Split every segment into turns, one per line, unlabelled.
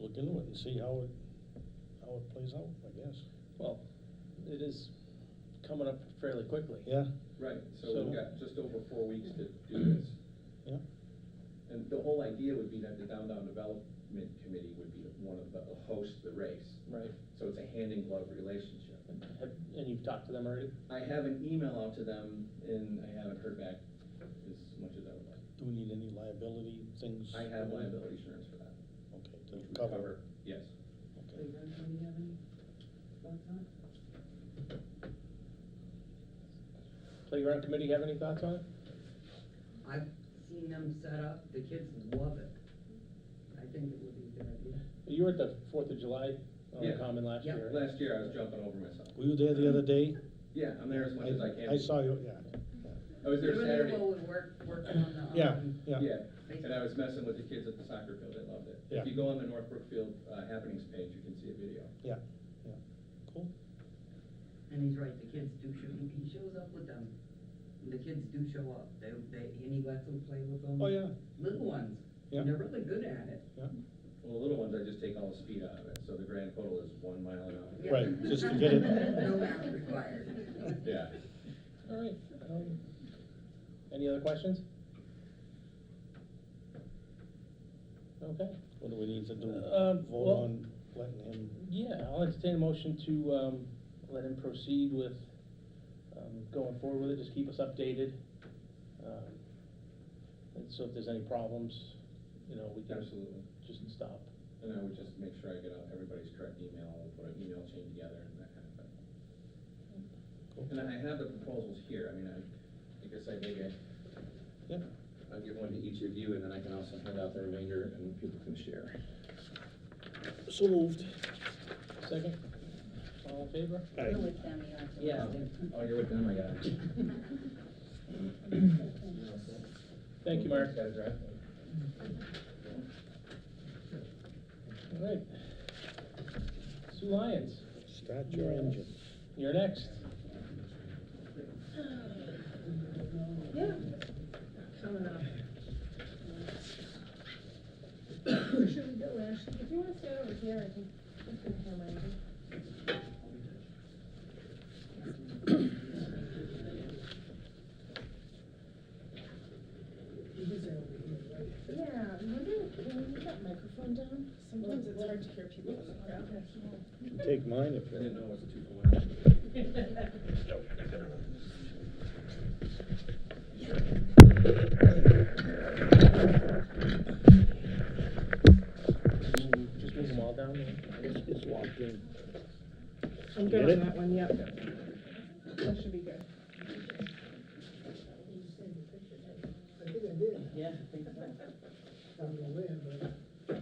look into it and see how it, how it plays out, I guess.
Well, it is coming up fairly quickly.
Yeah,
Right, so
So-
we've got just over four weeks to do this.
yeah,
And the whole idea would be that the downtown development committee would be one of the, host the race.
Right.
So it's a hand in glove relationship.
Have, and you've talked to them already?
I have an email out to them and I haven't heard back as much as I would like.
do we need any liability things?
I have liability insurance for that.
Okay,
which
to
would
cover.
Yes.
Okay.
Playground, do you have any thoughts on it?
Playground committee have any thoughts on it?
I've seen them set up, the kids love it. I think it would be a good idea.
You were at the Fourth of July uh,
Yeah.
Common last
Yeah.
year. right?
Last year I was jumping over myself.
Were you there the other day?
Yeah, I'm there as much as I can.
I
be.
saw you, yeah,
I was there
You and your
Saturday.
boy would work, working on the,
yeah,
um,
yeah.
Yeah, and I was messing with the kids at the soccer field, I loved it.
Yeah.
If you go on the North Brookfield uh, happenings page, you can see a video.
Yeah, yeah, cool.
And he's right, the kids do show, he- he shows up with them. The kids do show up, they, they, and he lets them play with them.
Oh, yeah,
Little ones,
Yeah.
and they're really good at it.
yeah,
Well, the little ones, I just take all the speed out of it, so the grand total is one mile an hour.
Yeah.
Right, just to get it-
No math required.
Yeah.
All right. um, Any other questions? Okay.
what do we need to do?
Um,
Vote
well-
on letting him,
Yeah, I'll entertain a motion to, um, let him proceed with, um, going forward with it, just keep us updated. Um, And so if there's any problems, you know, we can
Absolutely.
just stop.
And I would just make sure I get out everybody's correct email, we'll put an email chain together and that kind of thing.
Cool.
And I have the proposals here, I mean, I, I guess I maybe I-
yeah,
I'll give one to each of you, and then I can also hand out the remainder and people can share.
so moved.
Second? All in favor?
Aye.
You're with them, you have to-
Yeah.
Oh, you're with them, I got it.
Thank you, Mark.
Guys, right?
All right. Sue Lyons,
Start your engine.
you're next.
Yeah. Coming up. Where should we go, Ashley? If you wanna stay over here, I think we can hear my. Yeah, remember when we put that microphone down? Sometimes it's hard to hear people in the crowd.
You can Take mine if
I didn't know
you.
it was two for one.
Just move them all down there.
It's locked in.
I'm
good Get on it? that
one, yep. That should be good.
I think I did,
Yeah, I think so.
down the way, but.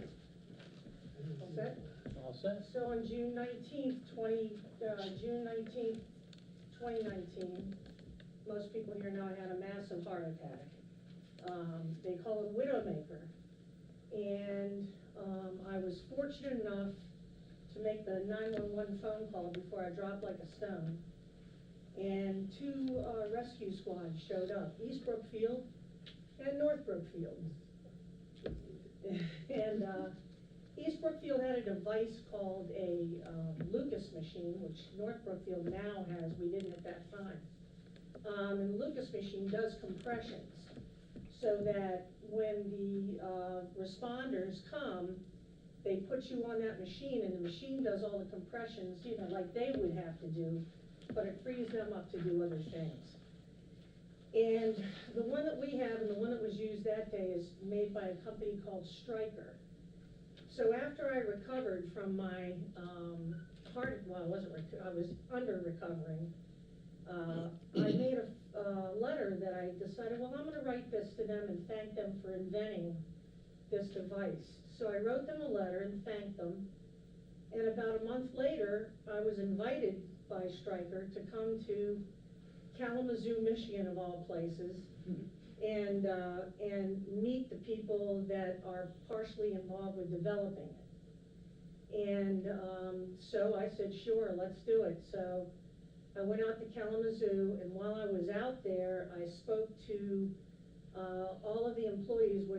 Okay,
All set?
so on June nineteenth, twenty, uh, June nineteenth, twenty nineteen, most people here know I had a massive heart attack. Um, they call it widowmaker. And, um, I was fortunate enough to make the nine-one-one phone call before I dropped like a stone. And two, uh, rescue squads showed up, East Brookfield and North Brookfield. And, uh, East Brookfield had a device called a um, Lucas machine, which North Brookfield now has, we didn't at that time. Um, and Lucas machine does compressions, so that when the, uh, responders come, they put you on that machine, and the machine does all the compressions, you know, like they would have to do, but it frees them up to do other things. And the one that we have, and the one that was used that day, is made by a company called Stryker. So after I recovered from my, um, heart, well, I wasn't, rec- I was under recovering, uh, I made a, uh, letter that I decided, well, I'm gonna write this to them and thank them for inventing this device. So I wrote them a letter and thanked them, and about a month later, I was invited by Stryker to come to Kalamazoo, Michigan of all places, and, uh, and meet the people that are partially involved with developing it. And, um, so I said, sure, let's do it. So I went out to Kalamazoo, and while I was out there, I spoke to, uh, all of the employees, which